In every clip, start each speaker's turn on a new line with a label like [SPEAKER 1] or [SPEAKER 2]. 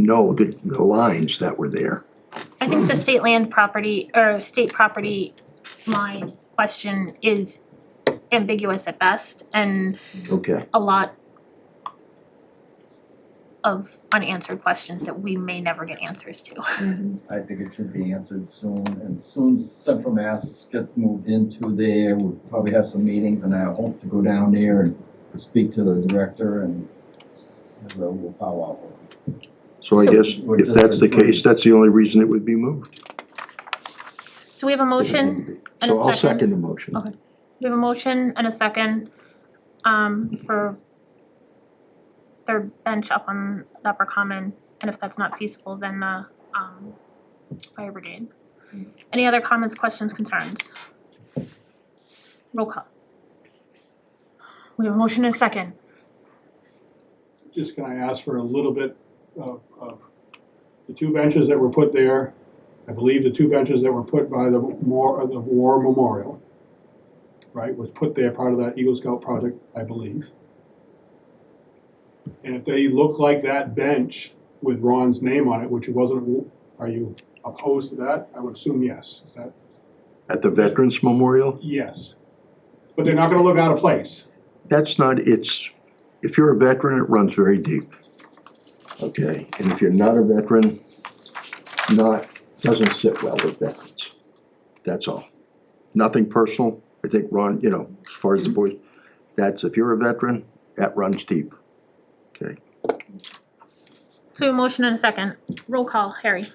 [SPEAKER 1] know the, the lines that were there.
[SPEAKER 2] I think the state land property, or state property line question is ambiguous at best and
[SPEAKER 1] Okay,
[SPEAKER 2] a lot of unanswered questions that we may never get answers to.
[SPEAKER 3] I think it should be answered soon, and soon as Central Mass gets moved into there, we'll probably have some meetings, and I hope to go down there and speak to the director and and we'll we'll follow up.
[SPEAKER 1] so I
[SPEAKER 2] So-
[SPEAKER 1] guess if that's the case, that's the only reason it would be moved.
[SPEAKER 2] So we have a motion, and a
[SPEAKER 1] So I'll
[SPEAKER 2] second.
[SPEAKER 1] second the motion.
[SPEAKER 2] Okay. we have a motion and a second, um, for third bench up on the Upper Common, and if that's not feasible, then the, um, fire brigade. Any other comments, questions, concerns? Roll call. We have a motion and a second.
[SPEAKER 4] just gonna ask for a little bit of, of the two benches that were put there. I believe the two benches that were put by the war, the war memorial, right, was put there part of that Eagle Scout project, I believe. And if they look like that bench with Ron's name on it, which it wasn't, are you opposed to that? I would assume yes. Is that,
[SPEAKER 1] At the Veterans Memorial,
[SPEAKER 4] yes. But they're not gonna look out of place.
[SPEAKER 1] that's not, it's, if you're a veteran, it runs very deep. Okay, and if you're not a veteran, not, doesn't sit well with veterans. That's all. Nothing personal. I think Ron, you know, as far as the boys, that's, if you're a veteran, that runs deep.
[SPEAKER 2] So we have a motion and a second. Roll call, Harry.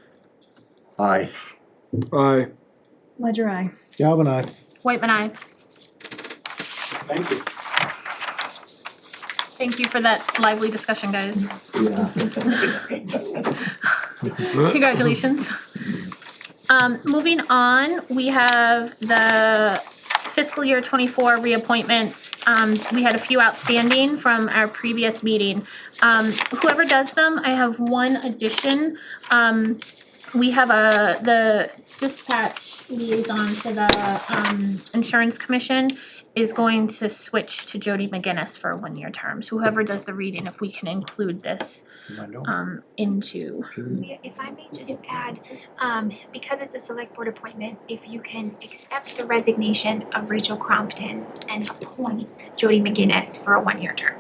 [SPEAKER 1] Aye.
[SPEAKER 5] Aye.
[SPEAKER 6] Ledger eye.
[SPEAKER 5] Galvin I.
[SPEAKER 2] Whitman, I
[SPEAKER 4] Thank you.
[SPEAKER 2] Thank you for that lively discussion, guys.
[SPEAKER 1] Yeah.
[SPEAKER 2] Congratulations. Um, moving on, we have the fiscal year twenty-four reappointments. Um, we had a few outstanding from our previous meeting. Um, whoever does them, I have one addition. Um, we have a, the dispatch liaison for the, um, insurance commission is going to switch to Jody McGinnis for a one-year term. So whoever does the reading, if we can include this, um, into
[SPEAKER 7] Yeah, If I may just add, um, because it's a select board appointment, if you can accept the resignation of Rachel Crompton and appoint Jody McGinnis for a one-year term.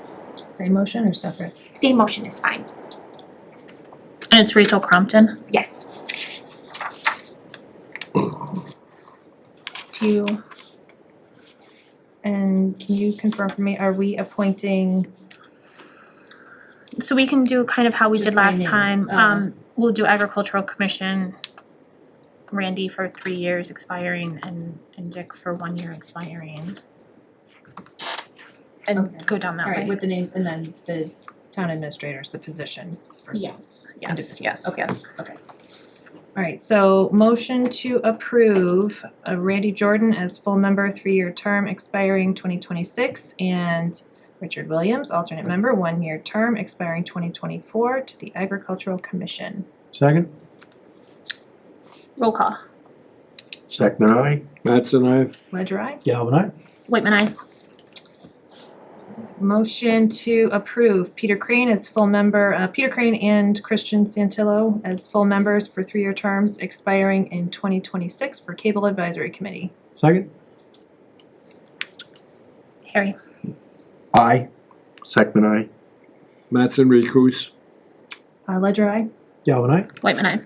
[SPEAKER 6] Same motion or separate?
[SPEAKER 7] Same motion is fine,
[SPEAKER 2] And it's Rachel Crompton.
[SPEAKER 7] yes.
[SPEAKER 2] Do you,
[SPEAKER 6] And can you confirm for me, are we appointing,
[SPEAKER 2] so we can do kind of how we did
[SPEAKER 6] Just
[SPEAKER 2] last
[SPEAKER 6] rename,
[SPEAKER 2] time.
[SPEAKER 6] oh.
[SPEAKER 2] Um, we'll do agricultural commission, Randy for three years expiring and, and Dick for one year expiring.
[SPEAKER 6] Okay.
[SPEAKER 2] And go down that
[SPEAKER 6] all right,
[SPEAKER 2] way.
[SPEAKER 6] with the names and then the town administrators, the position versus?
[SPEAKER 2] Yes, yes,
[SPEAKER 6] Individual.
[SPEAKER 2] yes,
[SPEAKER 6] Okay.
[SPEAKER 2] yes.
[SPEAKER 6] All right, so motion to approve uh, Randy Jordan as full member, three-year term expiring 2026, and Richard Williams, alternate member, one-year term expiring 2024 to the Agricultural Commission.
[SPEAKER 5] Second.
[SPEAKER 2] Roll call.
[SPEAKER 1] Second, aye.
[SPEAKER 5] Mattson I.
[SPEAKER 6] Ledger I.
[SPEAKER 5] Galvin I.
[SPEAKER 2] Whitman, I.
[SPEAKER 6] Motion to approve Peter Crane as full member, uh, Peter Crane and Christian Santillo as full members for three-year terms expiring in 2026 for Cable Advisory Committee.
[SPEAKER 5] Second.
[SPEAKER 2] Harry.
[SPEAKER 1] Aye. Second, aye.
[SPEAKER 5] Mattson recuse.
[SPEAKER 6] Uh, Ledger I.
[SPEAKER 5] Galvin I.
[SPEAKER 2] Whitman, I.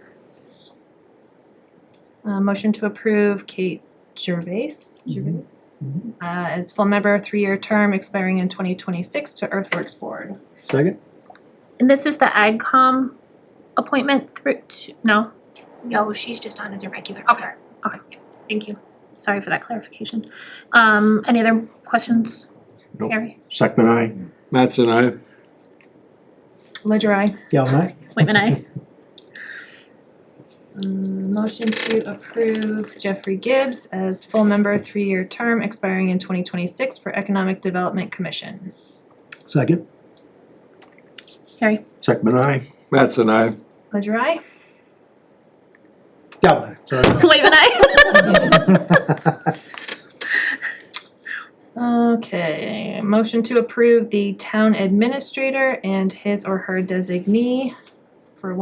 [SPEAKER 6] Uh, motion to approve Kate Gervais, Gervais?
[SPEAKER 5] Mhm.
[SPEAKER 6] Uh, as full member, three-year term expiring in 2026 to Earthworks Board.
[SPEAKER 5] Second.
[SPEAKER 2] And this is the AgCom appointment through, to- no?
[SPEAKER 7] No, she's just on as a regular
[SPEAKER 2] Okay.
[SPEAKER 7] member.
[SPEAKER 2] Thank you. Sorry for that clarification. Um, any other questions?
[SPEAKER 1] Nope.
[SPEAKER 2] Harry.
[SPEAKER 1] Second, aye.
[SPEAKER 5] Mattson I.
[SPEAKER 6] Ledger I.
[SPEAKER 5] Galvin I.
[SPEAKER 2] Whitman, I.
[SPEAKER 6] Um, motion to approve Jeffrey Gibbs as full member, three-year term expiring in 2026 for Economic Development Commission.
[SPEAKER 5] Second.
[SPEAKER 2] Harry.
[SPEAKER 1] Second, aye.
[SPEAKER 5] Mattson I.
[SPEAKER 6] Ledger I.
[SPEAKER 5] Galvin I. Sorry.
[SPEAKER 2] Whitman, I.
[SPEAKER 6] Okay, motion to approve the town administrator and his or her designee